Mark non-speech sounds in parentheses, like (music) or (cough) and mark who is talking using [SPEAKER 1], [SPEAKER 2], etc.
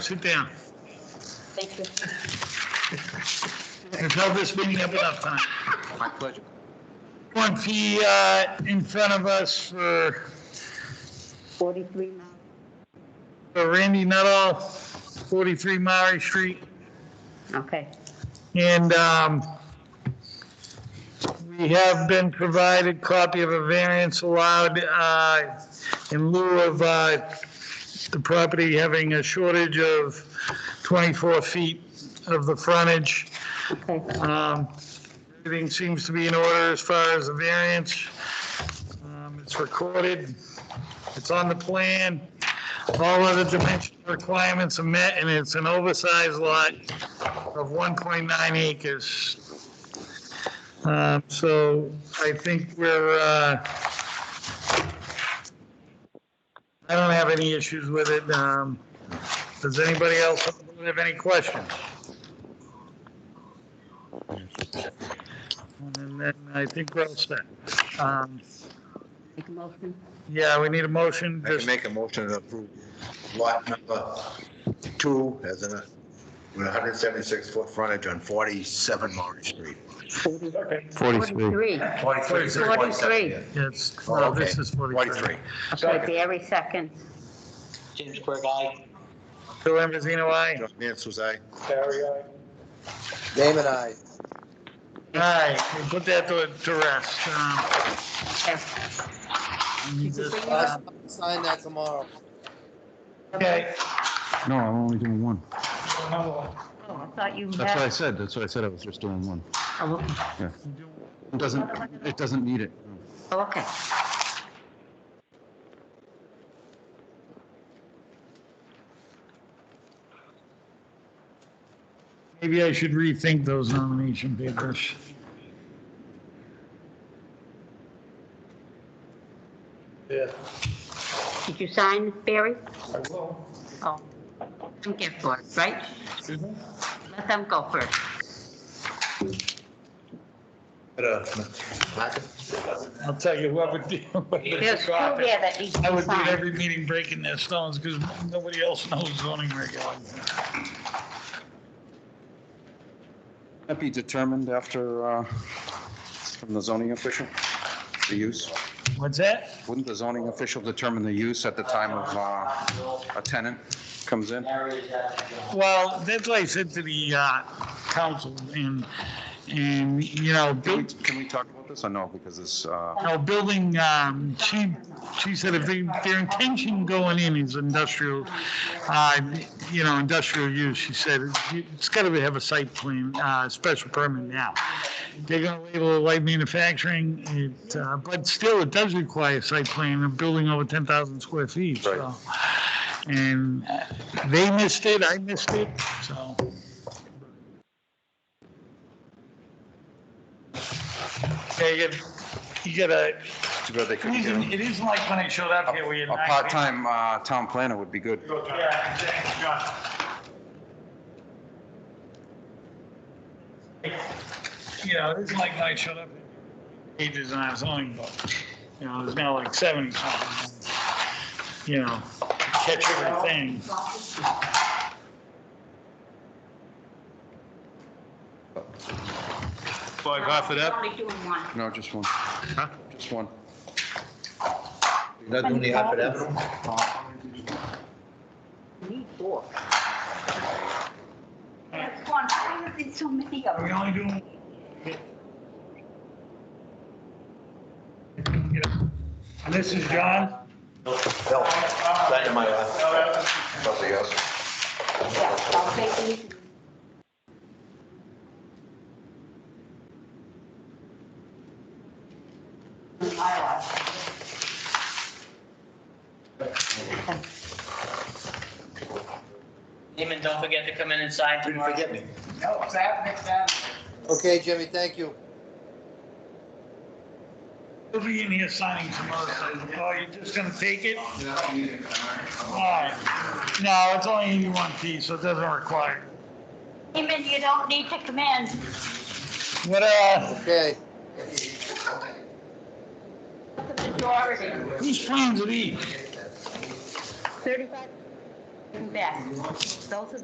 [SPEAKER 1] Sit down.
[SPEAKER 2] Thank you.
[SPEAKER 1] We've held this meeting up enough time.
[SPEAKER 3] My pleasure.
[SPEAKER 1] One fee uh, in front of us for
[SPEAKER 2] 43 miles.
[SPEAKER 1] for Randy Nuttall, 43 Maury Street.
[SPEAKER 2] Okay,
[SPEAKER 1] And um, we have been provided copy of a variance allowed uh, in lieu of uh, the property having a shortage of 24 feet of the frontage.
[SPEAKER 2] okay.
[SPEAKER 1] Um, Everything seems to be in order as far as the variance. Um, It's recorded, it's on the plan, all other dimensional requirements are met, and it's an oversized lot of 1.9 acres. Um, So I think we're, uh, I don't have any issues with it. Um, Does anybody else on the board have any questions? And then I think we're all set. Um,
[SPEAKER 2] Make a motion.
[SPEAKER 1] Yeah, we need a motion,
[SPEAKER 3] I can
[SPEAKER 1] just,
[SPEAKER 3] make a motion to approve lot number two as in a, with 176 foot frontage on 47 Maury Street.
[SPEAKER 2] 43.
[SPEAKER 3] 43, is it 47?
[SPEAKER 2] 43.
[SPEAKER 1] it's,
[SPEAKER 3] Oh,
[SPEAKER 1] no,
[SPEAKER 3] okay.
[SPEAKER 1] this is 43.
[SPEAKER 2] Okay, Barry second.
[SPEAKER 4] James Quirk, aye.
[SPEAKER 1] Bill Ambrosino, aye?
[SPEAKER 3] John Mansell's aye.
[SPEAKER 5] Damon, I.
[SPEAKER 1] Aye, we put that to, to rest. um,
[SPEAKER 2] Yes.
[SPEAKER 1] and you just, uh,
[SPEAKER 5] Sign that tomorrow.
[SPEAKER 1] Okay,
[SPEAKER 6] No, I'm only doing one.
[SPEAKER 2] Oh, I thought you
[SPEAKER 6] That's what I
[SPEAKER 2] had.
[SPEAKER 6] said, that's what I said, I was just doing one.
[SPEAKER 2] Oh,
[SPEAKER 6] It doesn't, it doesn't need it.
[SPEAKER 2] okay.
[SPEAKER 1] maybe I should rethink those nomination papers.
[SPEAKER 2] Did you sign, Barry? I will. Oh, don't get first, right? Let them go first.
[SPEAKER 1] I'll tell you whoever (laughs) did.
[SPEAKER 2] There's two there that need
[SPEAKER 1] I
[SPEAKER 2] to be
[SPEAKER 1] would be
[SPEAKER 2] signed.
[SPEAKER 1] every meeting breaking their stones because nobody else knows zoning regulations.
[SPEAKER 6] That be determined after, uh, from the zoning official, the use?
[SPEAKER 1] What's that?
[SPEAKER 6] Wouldn't the zoning official determine the use at the time of, uh, a tenant comes in?
[SPEAKER 1] Well, that's what I said to the uh, council and, and, you know,
[SPEAKER 6] Can we,
[SPEAKER 1] Bill,
[SPEAKER 6] can we talk about this or no, because it's, uh,
[SPEAKER 1] No, building, um, she, she said if they- their intention going in is industrial, uh, you know, industrial use, she said, it's got to have a site plan, uh, special permit now. They're going to label it light manufacturing, it, uh, but still, it does require a site plan, a building over 10,000 square feet, so. And uh, they missed it, I missed it, so. Okay, you get- you get a,
[SPEAKER 6] too bad they
[SPEAKER 1] it
[SPEAKER 6] couldn't get
[SPEAKER 1] isn't,
[SPEAKER 6] him.
[SPEAKER 1] it isn't like when I showed up here, we
[SPEAKER 6] A
[SPEAKER 1] had. nine
[SPEAKER 6] part-time, uh, town planner would be good.
[SPEAKER 1] people. Yeah, exactly, John. You know, it isn't like when I showed up, pages and I was only, but, you know, there's now like seventy something. You know, catch everything.
[SPEAKER 2] Five off it up? Only doing one.
[SPEAKER 6] No, just one. Just one.
[SPEAKER 3] Not only Hartford Avenue.
[SPEAKER 2] Need four. That's one. Why is there so many of
[SPEAKER 1] Are we
[SPEAKER 2] them?
[SPEAKER 1] only doing? And this is John?
[SPEAKER 3] Bill, sign in my lap. Something else.
[SPEAKER 2] Yeah, I'll take these. My life.
[SPEAKER 4] Damon, don't forget to come in and sign
[SPEAKER 3] Didn't
[SPEAKER 4] tomorrow.
[SPEAKER 3] forget me.
[SPEAKER 5] Okay, Jimmy, thank you.
[SPEAKER 1] We'll be in here signing tomorrow. Oh, you're just gonna take it? Alright. No, it's only eighty-one feet, so it doesn't require.
[SPEAKER 2] Damon, you don't need to come in.
[SPEAKER 1] What, uh,
[SPEAKER 5] Okay.
[SPEAKER 2] The majority.
[SPEAKER 1] whose plans are these?
[SPEAKER 2] Thirty-five. back. Those are